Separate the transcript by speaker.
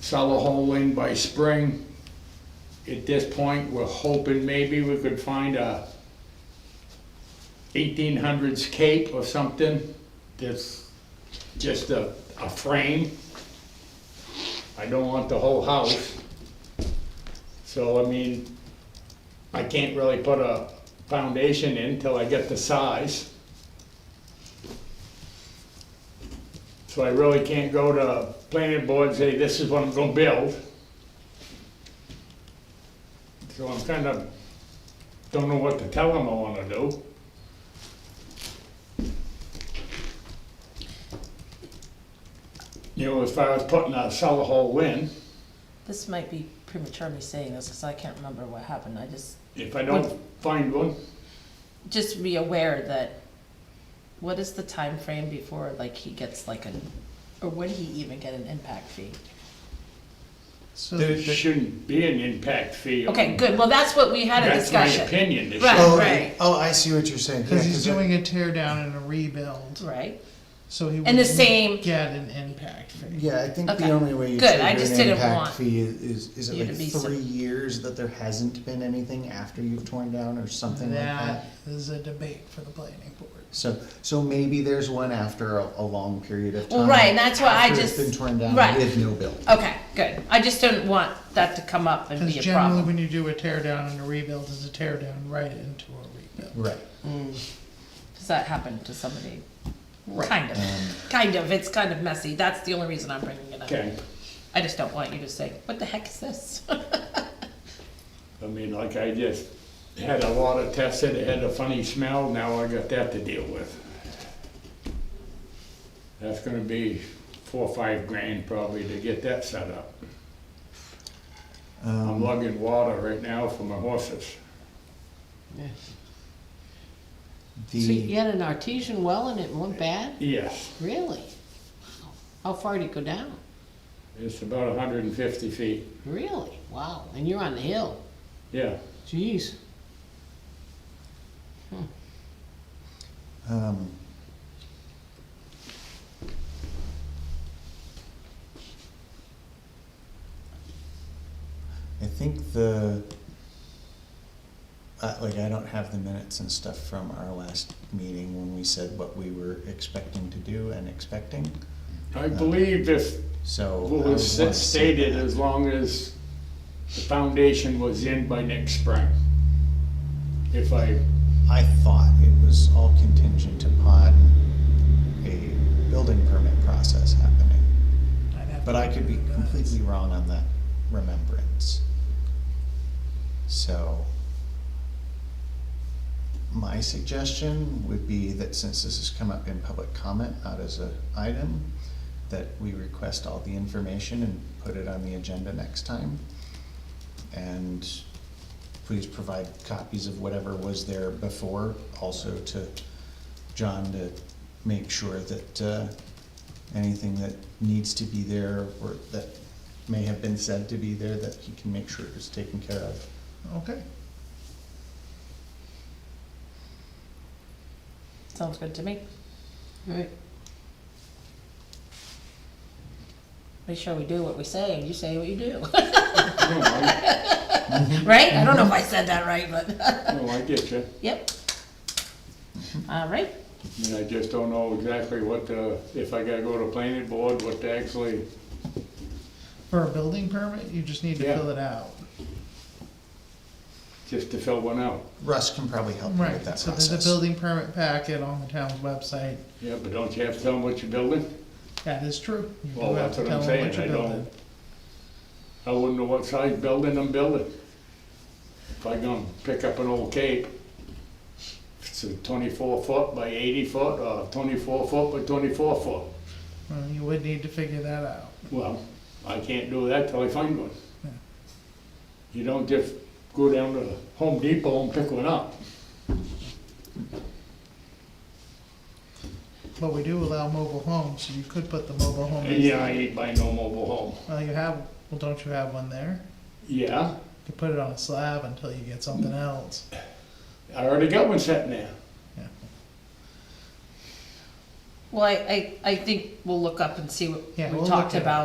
Speaker 1: sell the whole wing by spring. At this point, we're hoping maybe we could find a eighteen hundreds cape or something that's just a, a frame. I don't want the whole house. So, I mean, I can't really put a foundation in till I get the size. So I really can't go to planning board and say, this is what I'm gonna build. So I'm kind of, don't know what to tell them I wanna do. You know, as far as putting a cellar hole in,
Speaker 2: This might be premature me saying this, because I can't remember what happened, I just,
Speaker 1: if I don't find one,
Speaker 2: just be aware that, what is the time frame before, like, he gets like an, or would he even get an impact fee?
Speaker 3: So,
Speaker 1: there
Speaker 3: the-
Speaker 1: shouldn't be an impact fee.
Speaker 2: Okay, good, well, that's what we had a
Speaker 1: That's my
Speaker 2: discussion,
Speaker 1: opinion. There
Speaker 2: Right.
Speaker 1: shouldn't-
Speaker 3: oh,
Speaker 2: Right.
Speaker 3: oh, I see what you're saying.
Speaker 4: Because
Speaker 3: Yeah,
Speaker 4: he's
Speaker 3: 'cause I-
Speaker 4: doing a tear down and a rebuild,
Speaker 2: right?
Speaker 4: so he
Speaker 2: And the
Speaker 4: wouldn't
Speaker 2: same-
Speaker 4: get an impact fee.
Speaker 3: Yeah, I think
Speaker 2: Okay.
Speaker 3: the only way you
Speaker 2: Good,
Speaker 3: trigger
Speaker 2: I just
Speaker 3: an
Speaker 2: didn't
Speaker 3: impact
Speaker 2: want
Speaker 3: fee is is, is
Speaker 2: you
Speaker 3: it
Speaker 2: to
Speaker 3: like
Speaker 2: be
Speaker 3: three
Speaker 2: so-
Speaker 3: years that there hasn't been anything after you've torn down or something like
Speaker 4: That
Speaker 3: that.
Speaker 4: is a debate for the planning board.
Speaker 3: So so maybe there's one after a, a long period of time.
Speaker 2: Well, right, and that's why I
Speaker 3: after
Speaker 2: just-
Speaker 3: it's been torn down
Speaker 2: right.
Speaker 3: with no bill.
Speaker 2: Okay, good, I just don't want that to come up and
Speaker 4: Because
Speaker 2: be a
Speaker 4: generally,
Speaker 2: problem.
Speaker 4: when you do a tear down and a rebuild, is a tear down right into a rebuild.
Speaker 3: Right.
Speaker 2: Because that happened to somebody, kind of,
Speaker 5: Um,
Speaker 2: kind of, it's kind of messy, that's the only reason I'm bringing it up.
Speaker 1: Okay.
Speaker 2: I just don't want you to say, what the heck is this?
Speaker 1: I mean, like I just had a lot of tests that had a funny smell, now I got that to deal with. That's gonna be four or five grand probably to get that set up. I'm
Speaker 3: Um,
Speaker 1: lugging water right now for my horses.
Speaker 3: the
Speaker 5: So you had an artesian well and it went bad?
Speaker 1: Yes,
Speaker 5: Really? Wow. How far did it go down?
Speaker 1: it's about hundred and fifty feet,
Speaker 5: Really? Wow. And you're on the hill.
Speaker 1: yeah.
Speaker 5: Jeez.
Speaker 3: um, I think the uh, like I don't have the minutes and stuff from our last meeting when we said what we were expecting to do and expecting.
Speaker 1: I believe if,
Speaker 3: So um,
Speaker 1: what
Speaker 3: I would
Speaker 1: was
Speaker 3: wanna
Speaker 1: sta-
Speaker 3: see
Speaker 1: stated,
Speaker 3: that.
Speaker 1: as long as the foundation was in by next spring. If I,
Speaker 3: I thought it was all contingent upon a building permit process happening.
Speaker 4: I'd have
Speaker 3: But
Speaker 4: to
Speaker 3: I could be
Speaker 4: look at that.
Speaker 3: completely wrong on that remembrance. So, my suggestion would be that since this has come up in public comment, not as an item, that we request all the information and put it on the agenda next time. And please provide copies of whatever was there before, also to John to make sure that, uh, anything that needs to be there or that may have been said to be there that he can make sure is taken care of.
Speaker 4: Okay.
Speaker 2: Sounds good to me.
Speaker 5: All right.
Speaker 2: Make sure we do what we say and you say what you do.
Speaker 1: no, I,
Speaker 2: right? I don't know if I said that right, but
Speaker 1: no, I get you.
Speaker 2: yep. All right.
Speaker 1: I mean, I just don't know exactly what the, if I gotta go to planning board, what to actually,
Speaker 4: For a building permit, you just need to
Speaker 1: Yeah.
Speaker 4: fill it out.
Speaker 1: just to fill one out.
Speaker 3: Russ can probably help you with
Speaker 4: Right,
Speaker 3: that
Speaker 4: so there's a
Speaker 3: process.
Speaker 4: building permit packet on the town's website.
Speaker 1: Yeah, but don't you have to tell them what you're building?
Speaker 4: That is true. You do
Speaker 1: Well,
Speaker 4: have
Speaker 1: that's
Speaker 4: to
Speaker 1: what
Speaker 4: tell
Speaker 1: I'm
Speaker 4: them what
Speaker 1: saying,
Speaker 4: you're
Speaker 1: I
Speaker 4: building.
Speaker 1: don't, I wouldn't know what size building I'm building. If I gonna pick up an old cape, it's a twenty-four foot by eighty foot, or twenty-four foot by twenty-four foot.
Speaker 4: Well, you would need to figure that out.
Speaker 1: Well, I can't do that till I find one.
Speaker 4: Yeah.
Speaker 1: You don't just go down to Home Depot and pick one up.
Speaker 4: But we do allow mobile homes, so you could put the mobile home. in.
Speaker 1: Yeah, I ain't buying no mobile home.
Speaker 4: Well, you have, well, don't you have one there?
Speaker 1: Yeah,
Speaker 4: You could put it on a slab until you get something else.
Speaker 1: I already got one sitting there.
Speaker 2: Well, I, I, I think we'll look up and see what
Speaker 4: Yeah,
Speaker 2: we
Speaker 4: we'll
Speaker 2: talked
Speaker 4: look at it.
Speaker 2: about.